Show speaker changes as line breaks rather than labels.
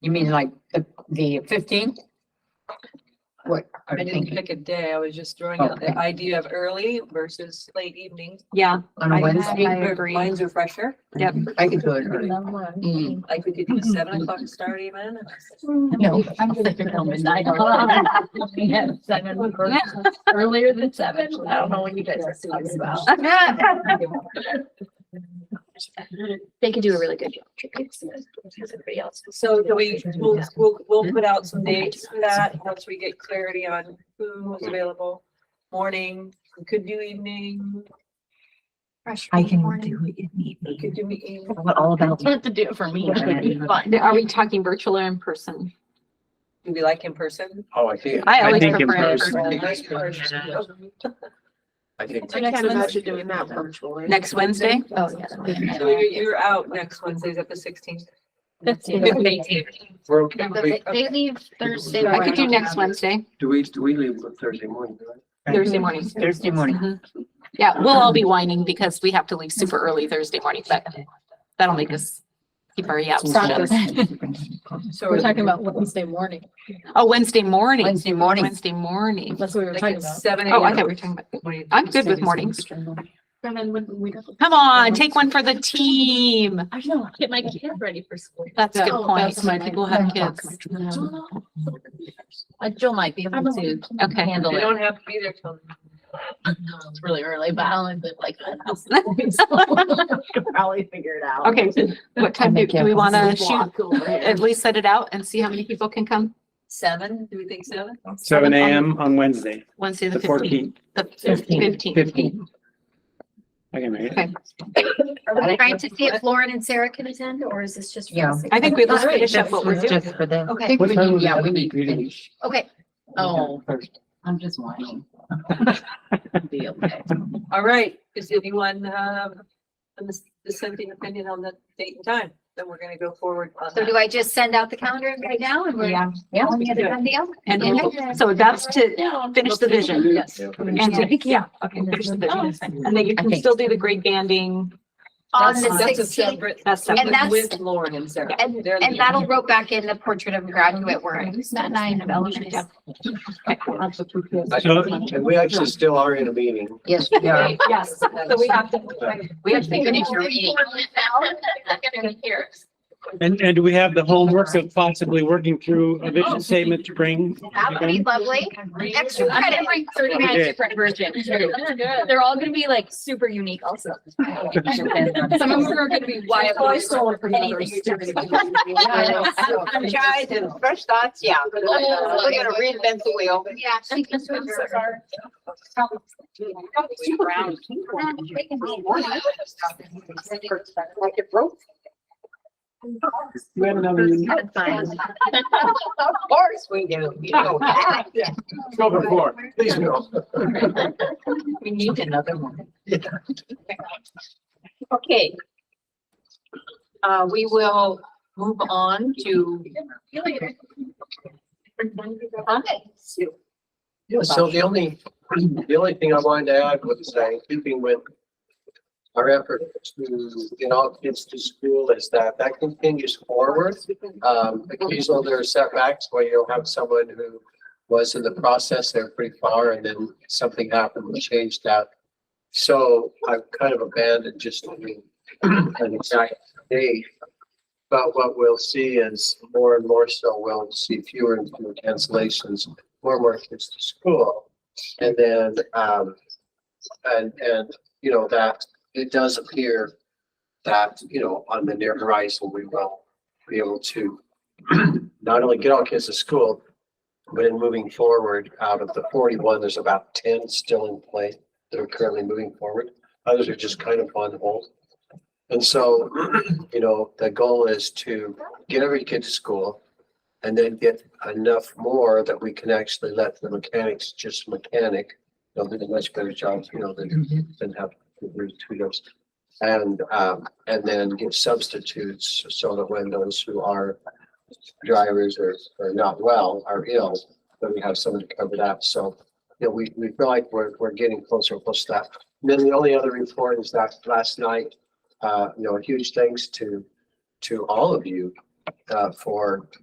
You mean like the, the fifteenth? What?
I
are you
didn't
thinking?
pick a day. I was just throwing out the
Okay.
idea of early versus late evening.
Yeah,
On
I
a
had-
Wednesday,
I agree.
Minds are fresher.
yep.
I could do it early. Mm,
Like we could do a seven o'clock start even.
No.
I'm gonna pick on midnight. Yes, seven, or earlier than seven. I don't know what you guys are talking about.
They could do a really good job.
So do we, we'll, we'll,
Hmm?
we'll put out some dates for that once we get clarity on who's available. Morning, we could do evening,
I can do it in the
we
evening.
could do meeting.
What all about?
You have to do it for me.
Are we talking virtual or in person?
Do we like in person?
Oh, I think.
I always
think in
prefer it in
person.
person.
I think.
I can't imagine doing that virtually.
Next Wednesday?
Oh, yeah.
So you're, you're out next Wednesday's at the sixteenth.
We're okay.
They
Wait,
they leave Thursday.
I could do
morning.
next Wednesday,
Do we, do we leave on Thursday morning? right?
Thursday morning.
Thursday morning.
Mhm. Yeah, we'll all be whining because we have to leave super early Thursday morning, but that'll make us keep our yaps. shut.
So
We're talking about Wednesday morning.
Oh, Wednesday morning,
Wednesday morning.
Wednesday morning.
That's what we were
Like
talking
at
about.
seven
Oh, I thought
AM.
we were talking about, I'm good with mornings.
And then when we.
Come on, take one for the team.
I know, get my kid ready for school.
That's a good
Oh,
point.
that's my-
People have kids.
Uh, Jill might be able to
Okay.
handle
They
it.
don't have to be there till.
It's really early, but I'll live like. that. Could Probably figure it out.
Okay, what time do, do we want to shoot? At
shoot?
least set it out and see how many people can come
Seven, do we think seven?
Seven AM on Wednesday,
Wednesday,
the
the fifteenth.
fourteenth.
The
Fifteenth.
fifteenth.
Fifteen.
I can make it.
Okay.
Trying to see if Lauren and Sarah can attend, or is this just? for
Yeah.
us?
I think we let's finish up what we're doing.
Just for them.
Okay,
What time was that meeting?
okay.
Oh.
I'm just whining.
Be okay.
All right, does anyone um, have a dis- dissenting opinion on the date and time? Then we're gonna go forward on
So
that.
do I just send out the calendar right now and we're?
Yeah,
Yeah.
on the other end of the hour?
and we'll- so that's to finish the vision. Oh,
Yes.
And to, yeah, okay, finish the vision. And then you can still do the great banding.
On
That's-
the
that's a
16th.
separate-
That's
And
separate.
that's-
With Lauren and Sarah.
And,
They're the-
and that'll rope back in the portrait of a graduate work.
That nine of elementary. Yeah.
So-
And we actually still are in a meeting.
Yes, we are.
Yes, so we have to, we have to finish your meeting.
And, and do we have the homework of possibly working through a vision statement to bring?
That would be lovely. Extra credit.
We did.
They're all gonna be like super unique also. Some of them are gonna be wild.
I stole
Anything you do is-
Tries and fresh thoughts, yeah. We're gonna reinvent the wheel.
Oh, Yeah. she can do it.
We have another meeting.
Of course we do. You know that.
Go before, please go.
We need another one.
Okay. Uh, we will move on to.
Yeah, so the only, the only thing I wanted to add was that in keeping with our effort to get all kids to school is that that continues forward. Um, occasionally there are setbacks where you'll have someone who was in the process, they're pretty far and then something happened and changed that. So I've kind of abandoned just doing an exact date. But what we'll see is more and more so, we'll see fewer and fewer cancellations more and more kids to school. And then, um, and, and, you know, that, it does appear that, you know, on the near horizon, we will be able to not only get all kids to school, but in moving forward, out of the forty-one, there's about ten still in play that are currently moving forward. Others are just kind of on hold. And so, you know, the goal is to get every kid to school, and then get enough more that we can actually let the mechanics just mechanic. They'll do a much better job, you know,
Mm-hmm.
than, than have the tutors. And, um, and then give substitutes so that when those who are drivers or, or not well, are ill, that we have someone to cover that. So, you know, we, we feel like we're, we're getting closer and closer to that. And then the only other report is that last night, uh, you know, a huge thanks to, to all of you, uh, for